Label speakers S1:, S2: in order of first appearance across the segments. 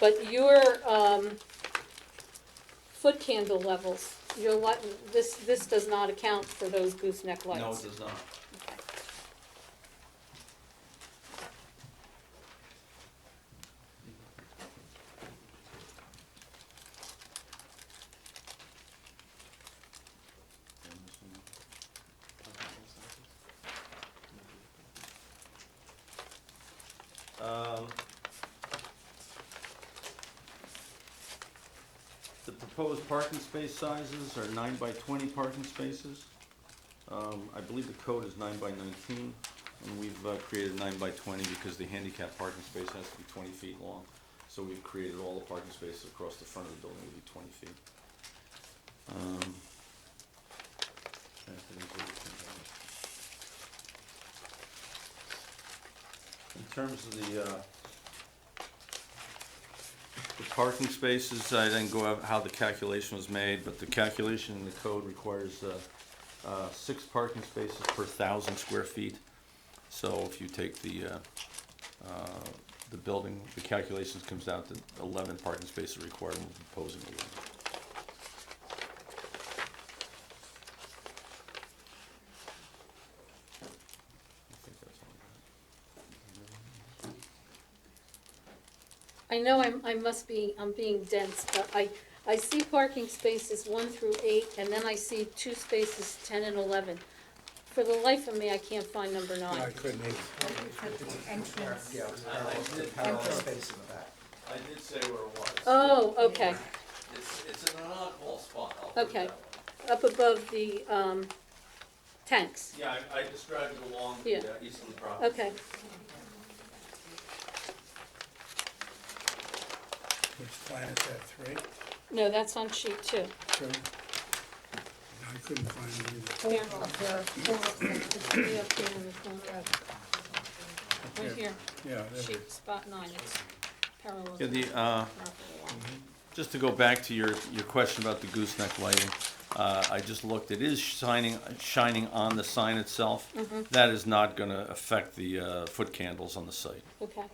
S1: But your, um, foot candle levels, your light, this, this does not account for those gooseneck lights.
S2: No, it does not.
S1: Okay.
S2: Um, The proposed parking space sizes are nine by twenty parking spaces. Um, I believe the code is nine by nineteen, and we've uh, created nine by twenty because the handicap parking space has to be twenty feet long. So we've created all the parking spaces across the front of the building will be twenty feet. Um, trying to think what we can do. In terms of the, uh, the parking spaces, I didn't go out how the calculation was made, but the calculation in the code requires, uh, uh, six parking spaces per thousand square feet. So if you take the, uh, uh, the building, the calculations comes out to eleven parking spaces required, and we're proposing eleven. I think that's all I got.
S1: I know I'm, I must be, I'm being dense, but I, I see parking spaces one through eight, and then I see two spaces ten and eleven. For the life of me, I can't find number
S3: I
S1: nine.
S3: couldn't either.
S4: Entrance.
S5: Yeah, it was parallel
S2: I
S5: to
S2: did
S5: the parallel
S2: parallel.
S5: space in the back.
S2: I did say where it was.
S1: Oh, okay,
S2: It's, it's in an oddball spot, I'll put it
S1: Okay.
S2: that way.
S1: up above the, um, tanks,
S2: Yeah, I, I described it along the
S1: Yeah.
S2: uh, eastern property.
S1: okay.
S3: Which plan is that, three?
S1: No, that's on sheet two.
S3: Two? I couldn't find it either.
S1: Here,
S4: Up there.
S1: way up here in the corner, right here,
S3: Yeah, that's
S1: sheet spot nine, it's parallel.
S2: Yeah, the, uh, just to go back to your, your question about the gooseneck lighting, uh, I just looked, it is shining, shining on the sign itself. That is not gonna affect the, uh, foot candles on the site.
S1: Okay,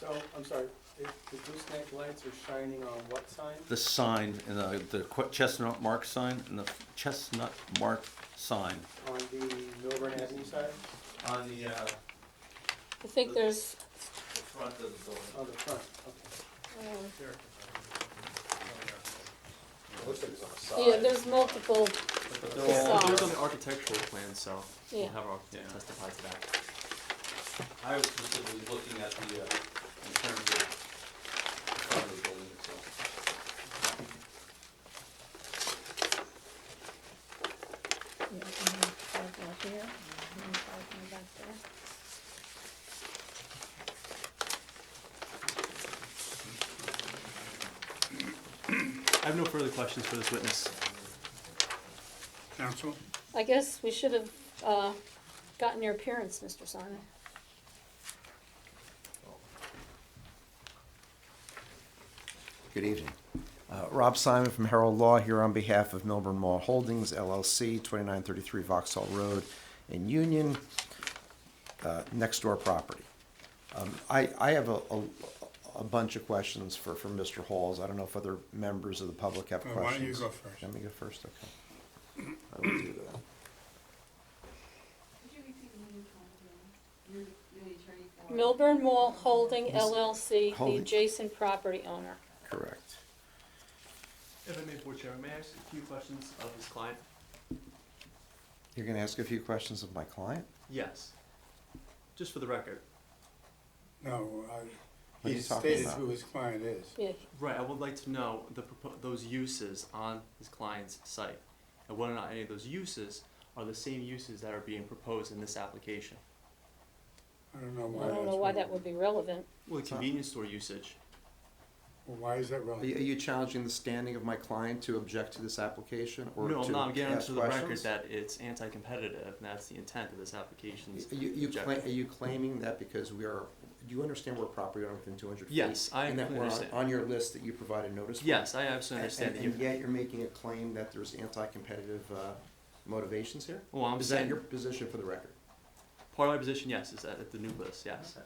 S6: So, I'm sorry, the the gooseneck lights are shining on what sign?
S2: The sign, and the, the que- chestnut mark sign, and the chestnut mark sign.
S6: On the Milburn Avenue side,
S2: On the, uh,
S1: I think there's,
S2: front of the building.
S6: on the front, okay.
S1: um,
S5: Looks like it's on the
S1: yeah, there's multiple,
S7: But they're all,
S1: Facade.
S7: those on the architectural plan, so we'll
S1: Yeah.
S7: have our architect
S2: Yeah.
S7: testify to that.
S2: I was specifically looking at the, uh, in terms of the front of the building itself.
S7: I have no further questions for this witness.
S3: council.
S1: I guess we should have, uh, gotten your appearance, Mr. Sarna.
S5: Good evening. Uh, Rob Simon from Herald Law here on behalf of Milburn Mall Holdings LLC, 2933 Vauxhall Road in Union, uh, next door property. Um, I, I have a, a- a bunch of questions for, for Mr. Halls. I don't know if other members of the public have
S3: Uh,
S5: questions.
S3: why don't you go first?
S5: Let me go first, okay. I will do that.
S8: Could you repeat the name of the attorney? You're the attorney for?
S1: Milburn Mall Holding LLC, the
S5: Holding.
S1: adjacent property owner.
S5: Correct.
S7: If I may, Board Chair, may I ask a few questions of this client?
S5: You're going to ask a few questions of my client?
S7: Yes. Just for the record.
S3: No, I,
S5: are
S3: he
S5: you talking
S3: stated
S5: about?
S3: who his client is.
S1: Yeah,
S7: Right, I would like to know the propo- those uses on this client's site, and whether or not any of those uses are the same uses that are being proposed in this application.
S3: I don't know why
S1: I
S3: that's.
S1: don't know why that would be relevant.
S7: Well, the convenience store usage.
S3: Well, Why is that
S5: Are you, are
S3: relevant?
S5: you challenging the standing of my client to object to this application or
S7: No,
S5: to
S7: I'm not I'm getting
S5: ask
S7: to the record
S5: questions?
S7: that it's anti-competitive, and that's the intent of this application's
S5: Are you, you cla-
S7: objective.
S5: are you claiming that because we are, do you understand we're a property owner within two hundred feet?
S7: Yes, I
S5: And that we're on,
S7: understand.
S5: on your list that you provided notice for?
S7: Yes, I absolutely
S5: And,
S7: understand
S5: and
S7: that you.
S5: and yet you're making a claim that there's anti-competitive, uh, motivations here?
S7: Well, I'm
S5: Is that
S7: saying,
S5: your position for the record?
S7: part of my position, yes, is that at the nucleus, yes.